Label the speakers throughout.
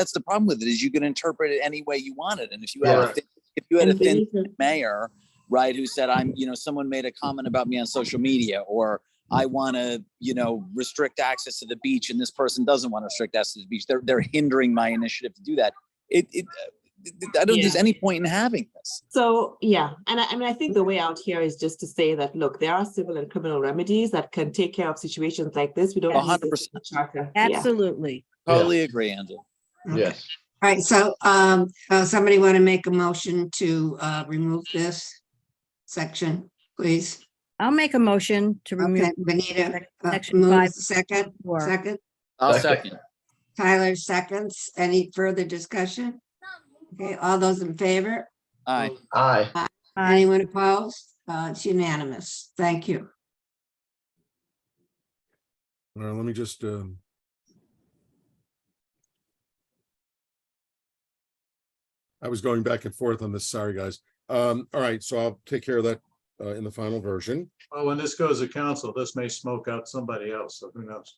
Speaker 1: that's the problem with it is you can interpret it any way you want it. And if you had a
Speaker 2: Correct.
Speaker 1: thin, if you had a
Speaker 3: And
Speaker 1: thin
Speaker 3: these are-
Speaker 1: mayor, right, who said, I'm, you know, someone made a comment about me on social media, or I want to, you know, restrict access to the beach, and this person doesn't want to restrict access to the beach. They're, they're hindering my initiative to do that. It, it, uh, I don't think there's
Speaker 3: Yeah.
Speaker 1: any point in having this.
Speaker 3: So, yeah, and I, I mean, I think the way out here is just to say that, look, there are civil and criminal remedies that can take care of situations like this. We don't.
Speaker 1: A
Speaker 3: need
Speaker 1: hundred
Speaker 3: this in the charter. Yeah.
Speaker 4: Absolutely.
Speaker 2: Yeah.
Speaker 1: Totally agree, Angela.
Speaker 5: Okay.
Speaker 2: Yes,
Speaker 5: All right, so um, uh, somebody want to make a motion to uh, remove this section, please?
Speaker 4: I'll make a motion to
Speaker 5: Okay,
Speaker 4: remove
Speaker 5: Benita, uh,
Speaker 4: section five.
Speaker 5: moves second,
Speaker 4: four.
Speaker 5: second,
Speaker 1: I'll
Speaker 2: Second.
Speaker 1: second.
Speaker 5: Tyler seconds. Any further discussion? Okay, all those in favor?
Speaker 1: Aye.
Speaker 2: aye,
Speaker 4: Aye.
Speaker 5: Anyone opposed? Uh, It's unanimous. Thank you.
Speaker 6: Uh, let me just, um. I was going back and forth on this, sorry, guys. Um, all right, so I'll take care of that, uh, in the final version.
Speaker 7: Well, when this goes to council, this may smoke out somebody else, so who knows?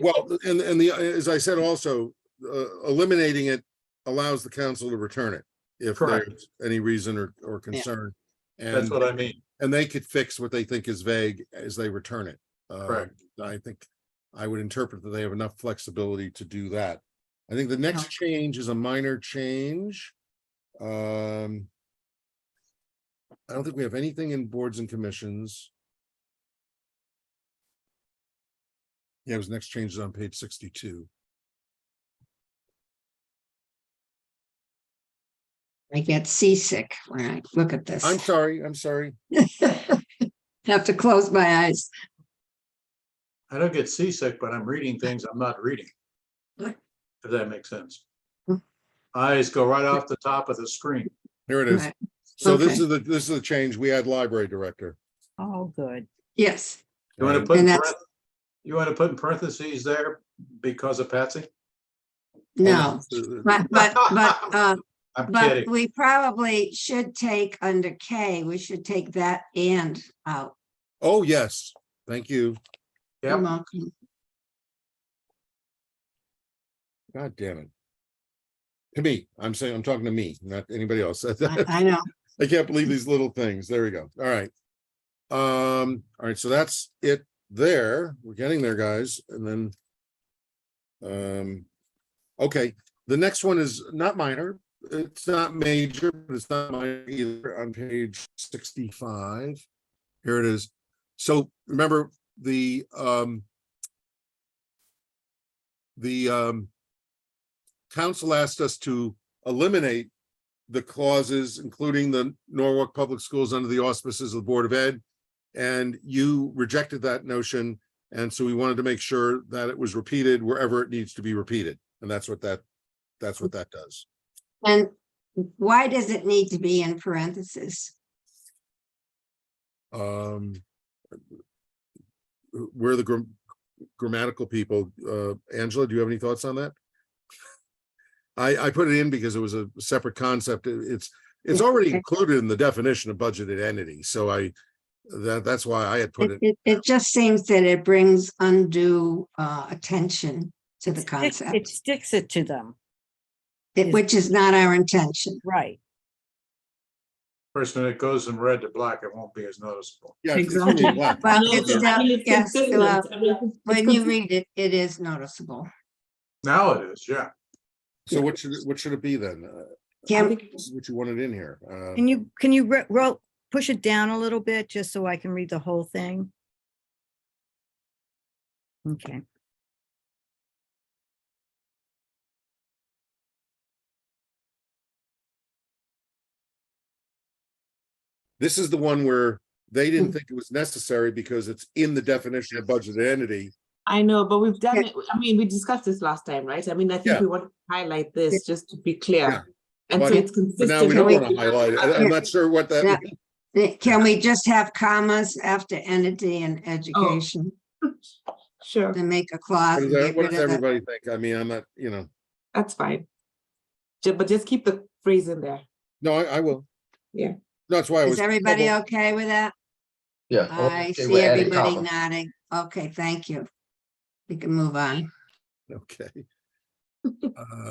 Speaker 6: Well, and, and the, as I said also, uh, eliminating it allows the council to return it. If
Speaker 7: Correct.
Speaker 6: there's any reason or, or concern.
Speaker 7: That's
Speaker 6: And,
Speaker 7: what I mean.
Speaker 6: and they could fix what they think is vague as they return it. Uh,
Speaker 7: Correct.
Speaker 6: I think I would interpret that they have enough flexibility to do that. I think the next change is a minor change. Um. I don't think we have anything in boards and commissions. Yeah, his next change is on page sixty-two.
Speaker 5: I get seasick when I look at
Speaker 6: I'm
Speaker 5: this.
Speaker 6: sorry, I'm sorry.
Speaker 5: Have to close my eyes.
Speaker 7: I don't get seasick, but I'm reading things I'm not reading. If that makes sense. Eyes go right off the top of the screen.
Speaker 6: Here it is.
Speaker 5: Right.
Speaker 6: So this
Speaker 5: Okay.
Speaker 6: is the, this is the change. We had library director.
Speaker 4: Oh, good.
Speaker 5: Yes.
Speaker 7: You want to put, in
Speaker 5: And that's-
Speaker 7: parenth- you want to put in parentheses there because of Patsy?
Speaker 5: No,
Speaker 6: Uh,
Speaker 5: but, but, but, uh,
Speaker 7: I'm
Speaker 5: but
Speaker 7: kidding.
Speaker 5: we probably should take under K, we should take that and out.
Speaker 6: Oh, yes, thank you.
Speaker 7: Yep.
Speaker 5: You're welcome.
Speaker 6: God damn it. To me, I'm saying, I'm talking to me, not anybody else.
Speaker 5: I I know.
Speaker 6: I can't believe these little things. There we go. All right. Um, all right, so that's it there. We're getting there, guys, and then. Um, okay, the next one is not minor. It's not major, but it's not minor either on page sixty-five. Here it is. So remember the um. The um. Council asked us to eliminate the clauses, including the Norwalk Public Schools under the auspices of the Board of Ed. And you rejected that notion. And so we wanted to make sure that it was repeated wherever it needs to be repeated. And that's what that, that's what that does.
Speaker 5: And why does it need to be in parentheses?
Speaker 6: Um. We're the gram- grammatical people. Uh, Angela, do you have any thoughts on that? I, I put it in because it was a separate concept. It- It's, it's already
Speaker 5: okay.
Speaker 6: included in the definition of budgeted entity. So I, that, that's why I had put
Speaker 5: It,
Speaker 6: it,
Speaker 5: it, it just seems that it brings undue, uh, attention to the
Speaker 4: It sticks- It
Speaker 5: concept,
Speaker 4: sticks it to them,
Speaker 5: it- which is not our intention.
Speaker 4: right.
Speaker 7: Person that goes from red to black, it won't be as noticeable.
Speaker 6: yeah, it's it's only
Speaker 3: Exactly.
Speaker 6: black.
Speaker 5: Well,
Speaker 3: No,
Speaker 5: it's
Speaker 3: I
Speaker 5: still,
Speaker 3: mean, it's
Speaker 5: yes,
Speaker 3: consistent.
Speaker 5: well,
Speaker 3: I mean, it's- it's
Speaker 5: when you
Speaker 3: consistent.
Speaker 5: read it, it is noticeable.
Speaker 7: Now it is, yeah.
Speaker 6: So what should, it- what should it be then? Uh,
Speaker 5: Can, we-
Speaker 6: What you wanted in here? Uh,
Speaker 4: Can you, can you ro- ro- push it down a little bit just so I can read the whole thing? Okay.
Speaker 6: This is the one where they
Speaker 5: Mm.
Speaker 6: didn't think it was necessary because it's in the definition of budgeted entity.
Speaker 3: I know, but we've done
Speaker 5: Yeah.
Speaker 3: it, I mean, we discussed this last time, right? I mean, I
Speaker 6: Yeah.
Speaker 3: think we want to highlight
Speaker 5: Yeah.
Speaker 3: this just to be
Speaker 6: Yeah.
Speaker 3: clear. And so
Speaker 6: But-
Speaker 3: it's
Speaker 6: But
Speaker 3: consistent.
Speaker 6: now we don't
Speaker 3: with-
Speaker 6: want to highlight it. I- I'm not sure what that,
Speaker 5: Mm, eh, can we just have commas after entity and education
Speaker 3: Sure,
Speaker 5: to make a clause?
Speaker 6: what
Speaker 5: and
Speaker 6: does-
Speaker 5: get
Speaker 6: what
Speaker 5: rid
Speaker 6: does
Speaker 5: of it?
Speaker 6: everybody think? I mean, I'm not, you know,
Speaker 3: that's fine. Ju- But just keep the phrase in there.
Speaker 6: no, I, I will.
Speaker 3: Yeah.
Speaker 6: That's why I was.
Speaker 5: Is everybody
Speaker 6: troubled.
Speaker 5: okay with that?
Speaker 2: yeah.
Speaker 5: I
Speaker 2: Oh, okay,
Speaker 5: see
Speaker 2: we're adding
Speaker 5: everybody
Speaker 2: comma.
Speaker 5: nodding. Okay, thank you. We can move on.
Speaker 6: Okay. Uh,